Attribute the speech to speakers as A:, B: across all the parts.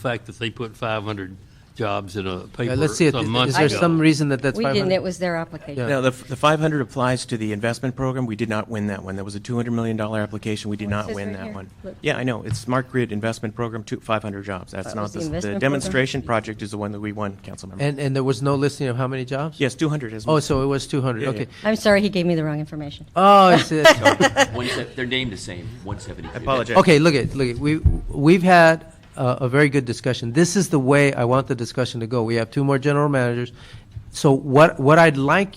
A: the fact that they put 500 jobs in a paper
B: Uh, Let's see, it.
A: some
B: is
A: months
B: there
A: ago.
B: some reason that that's
C: We didn't,
B: 500?
C: it was their application.
B: Yeah.
D: Now, the, the 500 applies to the investment program. We did not win that one. That was a $200 million application. We did not
C: says
D: win
C: right
D: that
C: here.
D: one.
C: Look.
D: Yeah, I know. It's Smart Grid Investment Program, two- 500 jobs. That's
C: That
D: not
C: was the
D: the,
C: investment
D: the
C: program?
D: demonstration project is the one that we won, Councilmember.
B: And, and there was no listing of how many jobs?
D: Yes, 200 is.
B: Oh, so it was 200,
D: Yeah,
B: okay.
C: I'm sorry, he gave me the wrong information.
B: Oh, it's, uh,
E: One se- they're named the same, 172.
D: I apologize.
B: okay, look at, look at, we, we've had a, a very good discussion. This is the way I want the discussion to go. We have two more general managers. So what, what I'd like,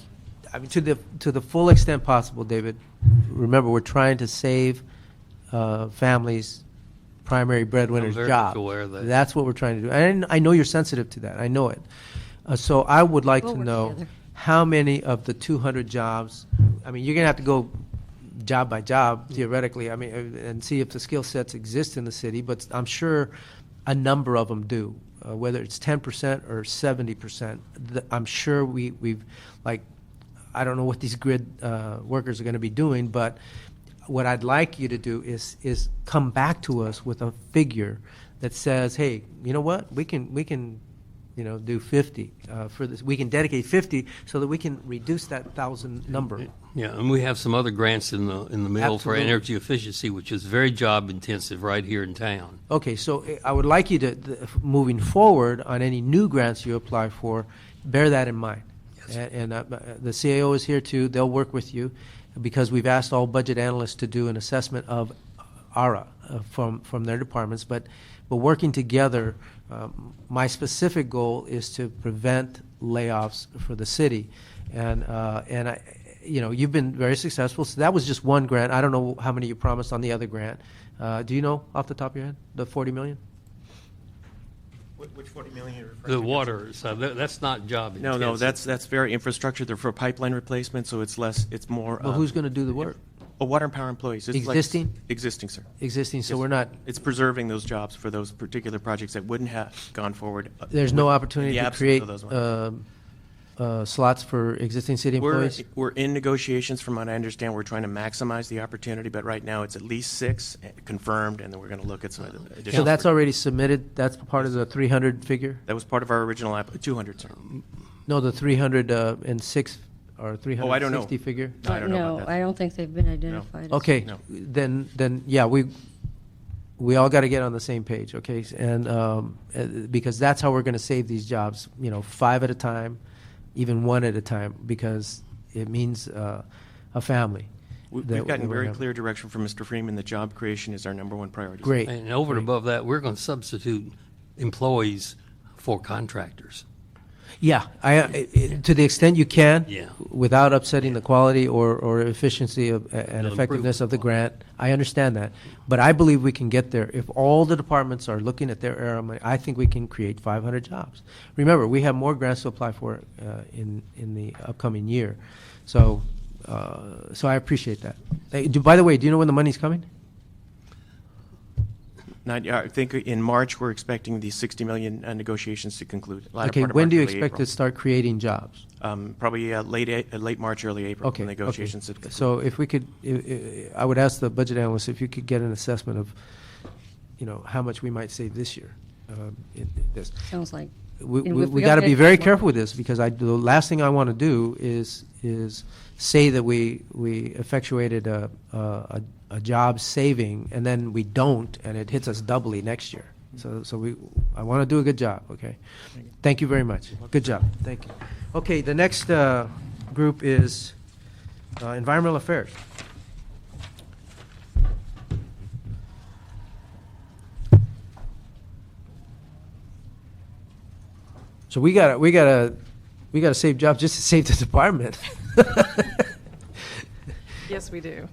B: I mean, to the, to the full extent possible, David, remember, we're trying to save, uh, families' primary breadwinner's
A: very
B: job.
A: much aware of that.
B: That's what we're trying to do. And I know you're sensitive to that, I know it. Uh, so I would like
C: We'll
B: to
C: work
B: know
C: together.
B: how many of the 200 jobs, I mean, you're going to have to go job by job theoretically, I mean, uh, and see if the skill sets exist in the city, but I'm sure a number of them do, uh, whether it's 10% or 70%. Th- I'm sure we, we've, like, I don't know what these grid uh, workers are going to be doing, but what I'd like you to do is is come back to us with a figure that says, hey, you know what, we can we can, you know, do 50 uh, for this. We can dedicate 50 so that we can reduce that thousand number.
A: Yeah, and we have some other grants in the, in the middle for
B: Absolutely.
A: energy efficiency, which is very job intensive right here in town.
B: Okay, so eh, I would like you to, th- moving forward on any new grants you apply for, bear that in mind. A- And uh, the CAO is here too, they'll work with you, because we've asked all budget analysts to do an assessment of ARA uh, from, from their departments, but, but working together, um, my specific goal is to prevent layoffs for the city. And, uh, and I, you know, you've been very successful, so that was just one grant, I don't know how many you promised on the other grant. Uh, Do you know off the top of your head, the 40 million?
D: Which 40 million are you
A: The
D: referring
A: water, so tha- that's not job
D: No,
A: intensive.
D: no, that's, that's very infrastructure. They're for pipeline replacement, so it's less, it's more.
B: But
D: um,
B: who's going to do the work?
D: Oh, water and power employees. It's like-
B: Existing?
D: Existing, sir.
B: Existing, so
D: Yes.
B: we're not,
D: It's preserving those jobs for those particular projects that wouldn't have gone forward. uh,
B: there's no
D: with- in
B: opportunity
D: the
B: to
D: absence of
B: create
D: those ones.
B: um, uh, slots for existing city
D: We're,
B: employees?
D: we're in negotiations, from what I understand, we're trying to maximize the opportunity, but right now it's at least six eh, confirmed, and then we're gonna look at some additional.
B: So that's already submitted, that's part of the 300 figure?
D: That was part of our original app, two hundred, sir.
B: No, the 306 or 360
D: Oh, I don't know.
B: figure?
D: No, I don't know about
C: No, I
D: that.
C: don't think they've been identified. as-
B: Okay,
D: No.
B: then, then, yeah, we, we all got to get on the same page, okay? And, um, uh, because that's how we're going to save these jobs, you know, five at a time, even one at a time, because it means uh, a family.
D: We-
B: that-
D: We've gotten
B: that we're
D: very
B: having.
D: clear direction from Mr. Freeman that job creation is our number one priority. sir.
B: Great.
A: And over and above that, we're going to substitute employees for contractors.
B: Yeah, I, I- I- to the extent you can.
A: Yeah.
B: Without upsetting the quality or, or efficiency of, and
A: improve
B: effectiveness of the
A: the
B: grant, I understand that. But I believe we can get there. If all the departments are looking at their area, of money, I think we can create five hundred jobs. Remember, we have more grants to apply for, uh, in, in the upcoming year. So, uh, so I appreciate that. Hey, do, by the way, do you know when the money's coming?
D: Not, I think in March, we're expecting the sixty million uh, negotiations to conclude. latter
B: Okay,
D: part of
B: when
D: March,
B: do you
D: early
B: expect
D: April.
B: to start creating jobs?
D: Um, probably, uh, late, A- uh, late March, early April.
B: Okay. okay.
D: Negotiations. to conclude.
B: So if we could, i- i- I would ask the budget analyst if you could get an assessment of, you know, how much we might save this year. um, in this.
C: Sounds like.
B: We,
C: and
B: we,
C: if
B: we
C: don't
B: gotta
C: get
B: be
C: it-
B: very careful with this, because I, the last thing I want to do is, is say that we, we effectuated a, a, a- a job saving, and then we don't, and it hits us doubly next year. So, so we, I want to do a good job, okay? Thank you very much. Good job, thank you. Okay, the next, uh, group is, uh, environmental affairs. So we gotta, we gotta, we gotta save jobs just to save the department.
F: Yes, we do.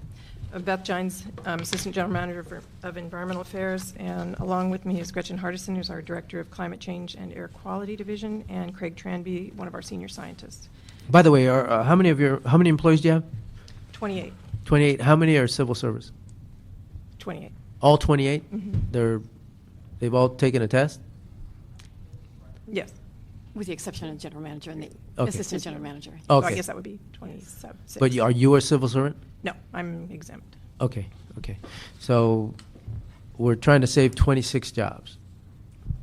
F: Uh, Beth Gines, um, Assistant General Manager for- of Environmental Affairs, and along with me is Gretchen Hardison, who's our Director of Climate Change and Air Quality Division, and Craig Tranby, one of our senior scientists.
B: By the way, are, uh, how many of your, how many employees do you have?
F: 28,
B: 28. How many are civil service?
F: 28.
B: All 28?
F: Mhm.
B: They're, they've all taken a test?
F: Yes.
G: With the exception of general manager and the
B: Okay.
G: assistant general manager.
F: So
B: Okay.
F: Oh, I guess that would be 26.
B: But you- are you a civil servant?
F: No, I'm exempt.
B: Okay, okay. So we're trying to save 26 jobs.